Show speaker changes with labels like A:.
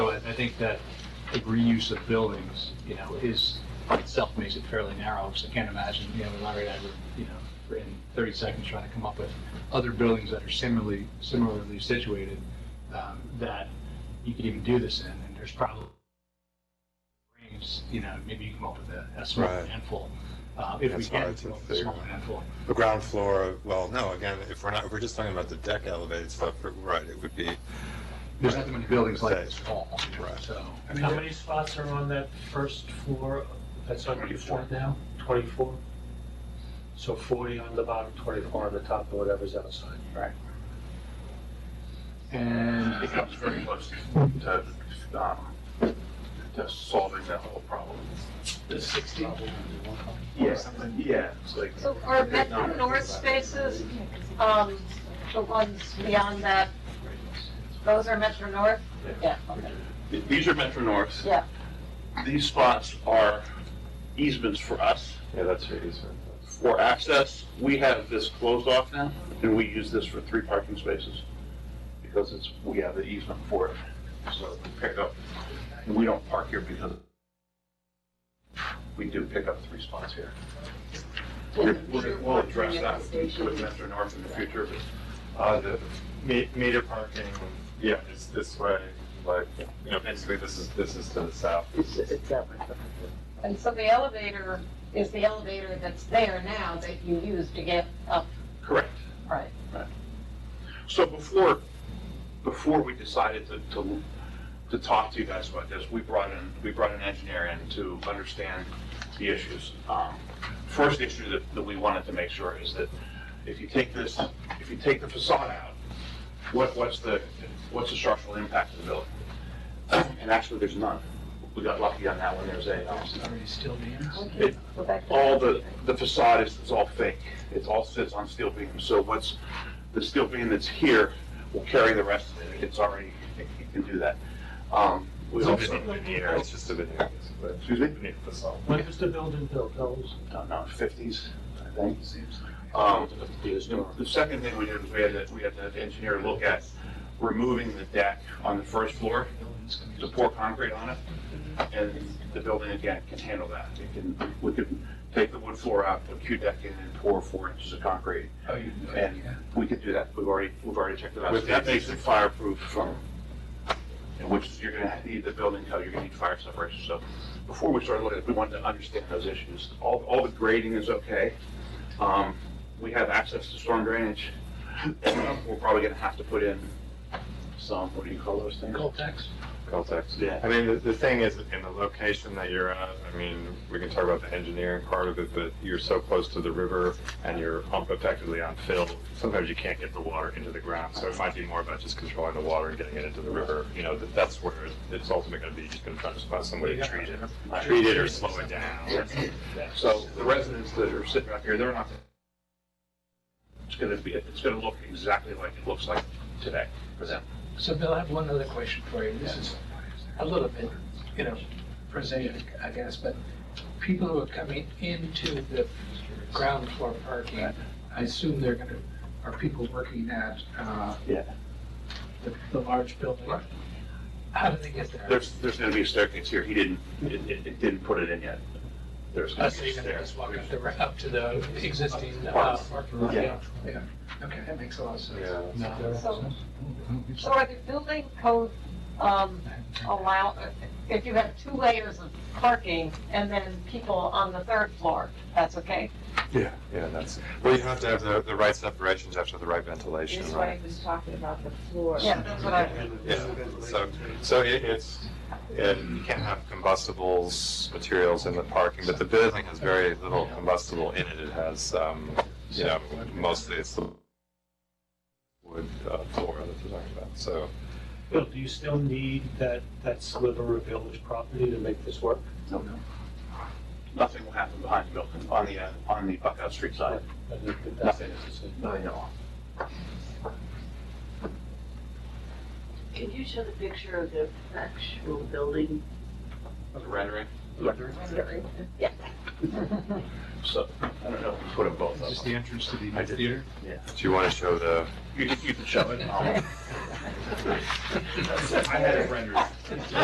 A: think that the reuse of buildings, you know, is, itself makes it fairly narrow, because I can't imagine, you know, Larry and I were, you know, for in thirty seconds trying to come up with other buildings that are similarly, similarly situated, um, that you could even do this in, and there's probably range, you know, maybe you come up with a, a small
B: Right.
A: handful, uh, if we
B: That's
A: can,
B: hard to
A: come up with a small
B: figure out.
A: handful.
B: The ground floor, well, no, again, if we're not, if we're just talking about the deck elevated stuff, right, it would be,
A: There's not that many buildings like
B: Right.
A: this tall, you know,
B: Right.
A: so.
C: I mean, How many spots are on that first floor that's on your floor now? 24? So 40 on the bottom, 24 on the top, and whatever's outside. Right.
A: And
D: It comes very close to, um, to solving that whole problem.
C: The 60?
D: Yeah, yeah, it's like.
E: So are Metro North spaces, um, the ones beyond that, those are Metro North? Yeah, okay,
D: These are Metro Norths.
E: yeah.
D: These spots are easements for us,
F: Yeah, that's your easement.
D: for access. We have this closed off now, and we use this for three parking spaces because it's, we have the easement for it. So we pick up, and we don't park here because we do pick up three spots here. We're- we're- We'll address that with Metro North in the future, but
F: Uh, the me- meter parking, yeah, is this way, like, you know, basically this is, this is to the south.
E: And so the elevator is the elevator that's there now that you use to get up,
D: Correct.
E: right?
D: So before, before we decided to, to, to talk to you guys about this, we brought in, we brought an engineer in to understand the issues. Um, First issue that, that we wanted to make sure is that if you take this, if you take the facade out, what, what's the, what's the structural impact of the building? And actually, there's none. We got lucky on that one, there's a, um,
A: are you still being?
D: it,
E: Go back to-
D: all the, the facade is, is all fake. It all sits on steel beams. So what's, the steel beam that's here will carry the rest of it. It's already, it can do that. Um, we
F: It's
D: also,
F: just a veneer, it's just a veneer, basically.
D: excuse me,
F: Veneer facade.
C: When was the building built? How old is it?
D: I don't know, fifties, I think. Um, the second thing we did was we had to, we had the engineer look at removing the deck on the first floor to pour concrete on it, and the building again can handle that. It can, we can take the wood floor out, put Q-deck in and pour four inches of concrete. And we can do that, we've already, we've already checked it out. So
F: With
D: That
F: the-
D: makes it fireproof from, and which is- you're gonna need the building code, you're gonna need fire separation. So before we started looking at it, we wanted to understand those issues. All, all the grading is okay. Um, we have access to storm drainage. We're probably gonna have to put in some, what do you call those things?
A: Coltex?
F: Caltex.
D: Yeah.
F: I mean, the, the thing is, in the location that you're at, I mean, we can talk about the engineering part of it, but you're so close to the river and you're um, effectively on fill, sometimes you can't get the water into the ground, so it might be more about just controlling the water and getting it into the river, you know, that, that's where it's ultimately gonna be, just gonna try to find some way to treat it, treat it or slow it down.
D: So the residents that are sitting out here, they're not. It's gonna be, it's gonna look exactly like it looks like today for them.
G: So Bill, I have one other question for you. This is a little bit, you know, prosaic, I guess, but people who are coming into the ground floor parking, I assume they're gonna, are people working at, uh,
D: Yeah.
G: the, the large building?
D: Right.
G: How do they get there?
D: There's, there's gonna be a staircase here. He didn't, it, it it didn't put it in yet. There's gonna
G: Unless they're
D: be a
G: gonna
D: stair.
G: just walk up the, ra- up to the existing, uh, parking lot?
D: Yeah.
G: Yeah, okay, that makes a lot of sense.
F: Yeah.
E: So So are the building code, um, allow, if you have two layers of parking and then people on the third floor, that's okay?
F: Yeah, yeah, that's, well, you have to have the, the right separations, you have to have the right ventilation,
H: This
F: right?
H: way was talking about the floor.
E: Yeah, that's what I,
F: Yeah, so, so it, it's, it, you can't have combustibles, materials in the parking, but the building has very little combustible in it. It has, um, you know, mostly it's the wood uh, floor that we're talking about, so.
C: Bill, do you still need that, that sliver of village property to make this work?
D: Nothing will happen behind the building, on the, uh, on the Buckout Street side.
C: I think that that's-
D: Nothing is, no, no.
H: Can you show the picture of the actual building?
D: The rendering.
H: Yeah.
D: So, I don't know, if we put them both
A: Is this
D: up.
A: the entrance to the
D: I did.
A: theater?
F: Do you want to show the,
D: You can, you can show it. I'll- I had it rendered.